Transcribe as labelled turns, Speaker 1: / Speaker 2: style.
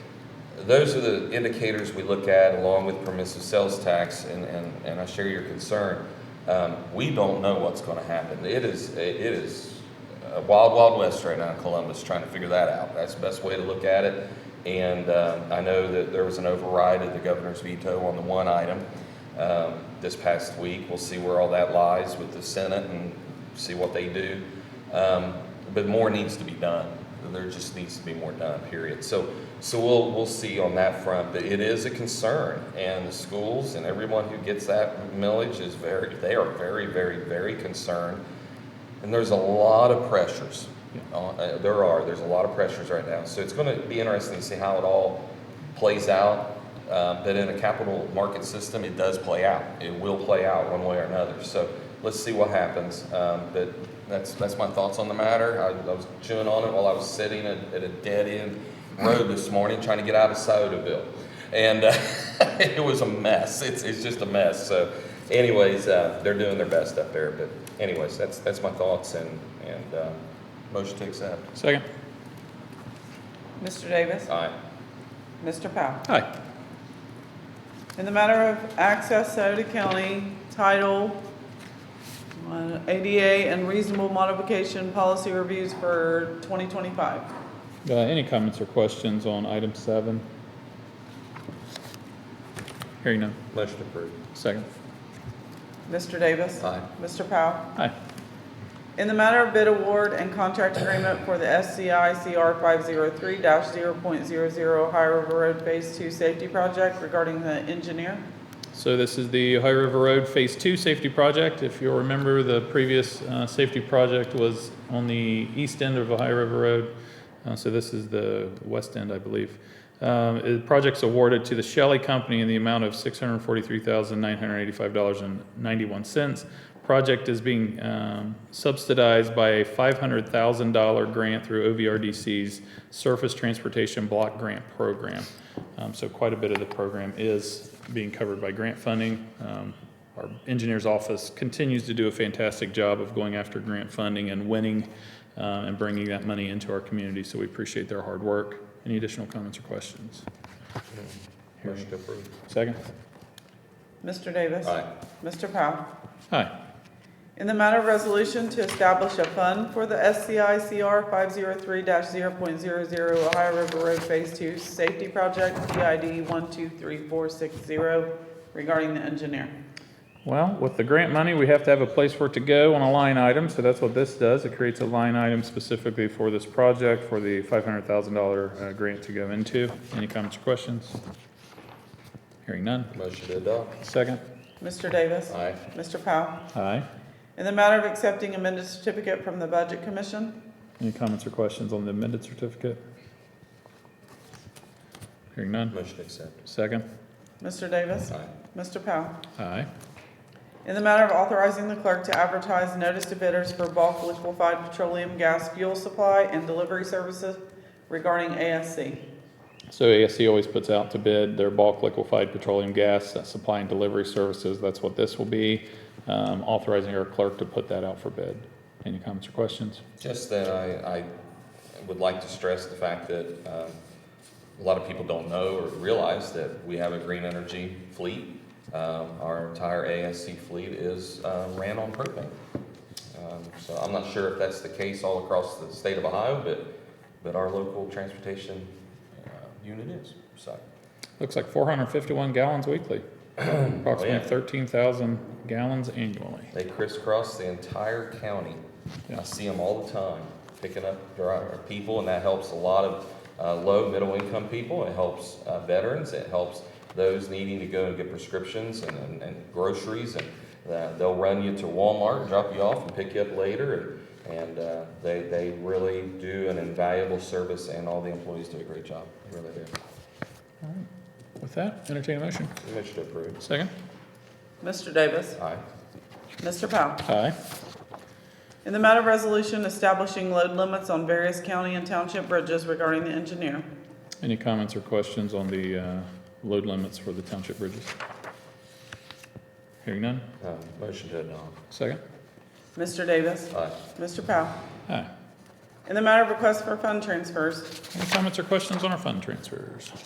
Speaker 1: those are the indicators we look at along with permissive sales tax, and, and, and I share your concern. Um, we don't know what's gonna happen. It is, it is a wild, wild west right now in Columbus, trying to figure that out. That's the best way to look at it. And, um, I know that there was an override of the governor's veto on the one item, um, this past week. We'll see where all that lies with the Senate and see what they do. Um, but more needs to be done. There just needs to be more done, period. So, so we'll, we'll see on that front, but it is a concern. And the schools and everyone who gets that millage is very, they are very, very, very concerned. And there's a lot of pressures. on- uh, There are, there's a lot of pressures right now. So it's going to be interesting to see how it all plays out. Uh, But in a capital market system, it does play out. It will play out one way or another. So let's see what happens. Um, But that's, that's my thoughts on the matter. I I was chewing on it while I was sitting at at a dead-end road this morning trying to get out of Sodaville. And uh, it was a mess. It's, it's just a mess. So anyways, uh, they're doing their best up there. But anyways, that's, that's my thoughts and, and uh, motion to accept.
Speaker 2: Second.
Speaker 3: Mr. Davis.
Speaker 1: Aye.
Speaker 3: Mr. Powell.
Speaker 2: Aye.
Speaker 3: In the matter of access Sauter County Title uh, ADA and reasonable modification policy reviews for 2025.
Speaker 2: Uh, Any comments or questions on item seven? Hearing none.
Speaker 1: Motion approved.
Speaker 2: Second.
Speaker 3: Mr. Davis.
Speaker 1: Aye.
Speaker 3: Mr. Powell.
Speaker 2: Aye.
Speaker 3: In the matter of bid award and contract agreement for the SCI CR 503-0.00 Ohio River Road Phase 2 Safety Project regarding the engineer.
Speaker 2: So this is the Ohio River Road Phase Two Safety Project. If you'll remember, the previous uh, safety project was on the east end of Ohio River Road. Uh, So this is the west end, I believe. Um, The project's awarded to the Shelley Company in the amount of $643,985.91. Project is being um, subsidized by a $500,000 grant through OVRDC's Surface Transportation Block Grant Program. Um, So quite a bit of the program is being covered by grant funding. Um, Our engineer's office continues to do a fantastic job of going after grant funding and winning uh, and bringing that money into our community, so we appreciate their hard work. Any additional comments or questions?
Speaker 1: Motion approved.
Speaker 2: Second?
Speaker 3: Mr. Davis.
Speaker 1: Aye.
Speaker 3: Mr. Powell.
Speaker 2: Aye.
Speaker 3: In the matter of resolution to establish a fund for the SCI CR 503-0.00 Ohio River Road Phase 2 Safety Project, PID 123460, regarding the engineer.
Speaker 2: Well, with the grant money, we have to have a place for it to go on a line item, so that's what this does. It creates a line item specifically for this project, for the $500,000 uh, grant to go into. Any comments or questions? Hearing none.
Speaker 1: Motion to adopt.
Speaker 2: Second?
Speaker 3: Mr. Davis?
Speaker 1: Aye.
Speaker 3: Mr. Powell?
Speaker 2: Aye.
Speaker 3: In the matter of accepting amended certificate from the Budget Commission,
Speaker 2: Any comments or questions on the amended certificate? Hearing none.
Speaker 1: Motion to accept.
Speaker 2: Second?
Speaker 3: Mr. Davis?
Speaker 1: Aye.
Speaker 3: Mr. Powell?
Speaker 2: Aye.
Speaker 3: In the matter of authorizing the clerk to advertise notice to bidders for bulk liquefied petroleum gas fuel supply and delivery services regarding ASC.
Speaker 2: So ASC always puts out to bid their bulk liquefied petroleum gas uh, supply and delivery services. That's what this will be, um, authorizing our clerk to put that out for bid. Any comments or questions?
Speaker 1: Just that I, I would like to stress the fact that um, a lot of people don't know or realize that we have a green energy fleet. Um, Our entire ASC fleet is uh, ran on propane. Um, So I'm not sure if that's the case all across the state of Ohio, but, but our local transportation uh, unit is, so.
Speaker 2: Looks like 451 gallons weekly, approximately
Speaker 1: yeah.
Speaker 2: 13,000 gallons annually.
Speaker 1: They crisscross the entire county. I
Speaker 2: Yeah.
Speaker 1: see them all the time picking up driver, people, and that helps a lot of uh, low, middle income people. It helps uh, veterans. It helps those needing to go and get prescriptions and, and, and groceries. And uh, they'll run you to Walmart, drop you off, and pick you up later. And, and uh, they, they really do an invaluable service, and all the employees do a great job. They really do.
Speaker 2: With that, entertain a motion.
Speaker 1: Motion to approve.
Speaker 2: Second?
Speaker 3: Mr. Davis?
Speaker 1: Aye.
Speaker 3: Mr. Powell?
Speaker 2: Aye.
Speaker 3: In the matter of resolution establishing load limits on various county and township bridges regarding the engineer.
Speaker 2: Any comments or questions on the uh, load limits for the township bridges? Hearing none.
Speaker 1: Um, motion to adopt.
Speaker 2: Second?
Speaker 3: Mr. Davis?
Speaker 1: Aye.
Speaker 3: Mr. Powell?
Speaker 2: Aye.
Speaker 3: In the matter of request for fund transfers,
Speaker 2: Any comments or questions on our fund transfers?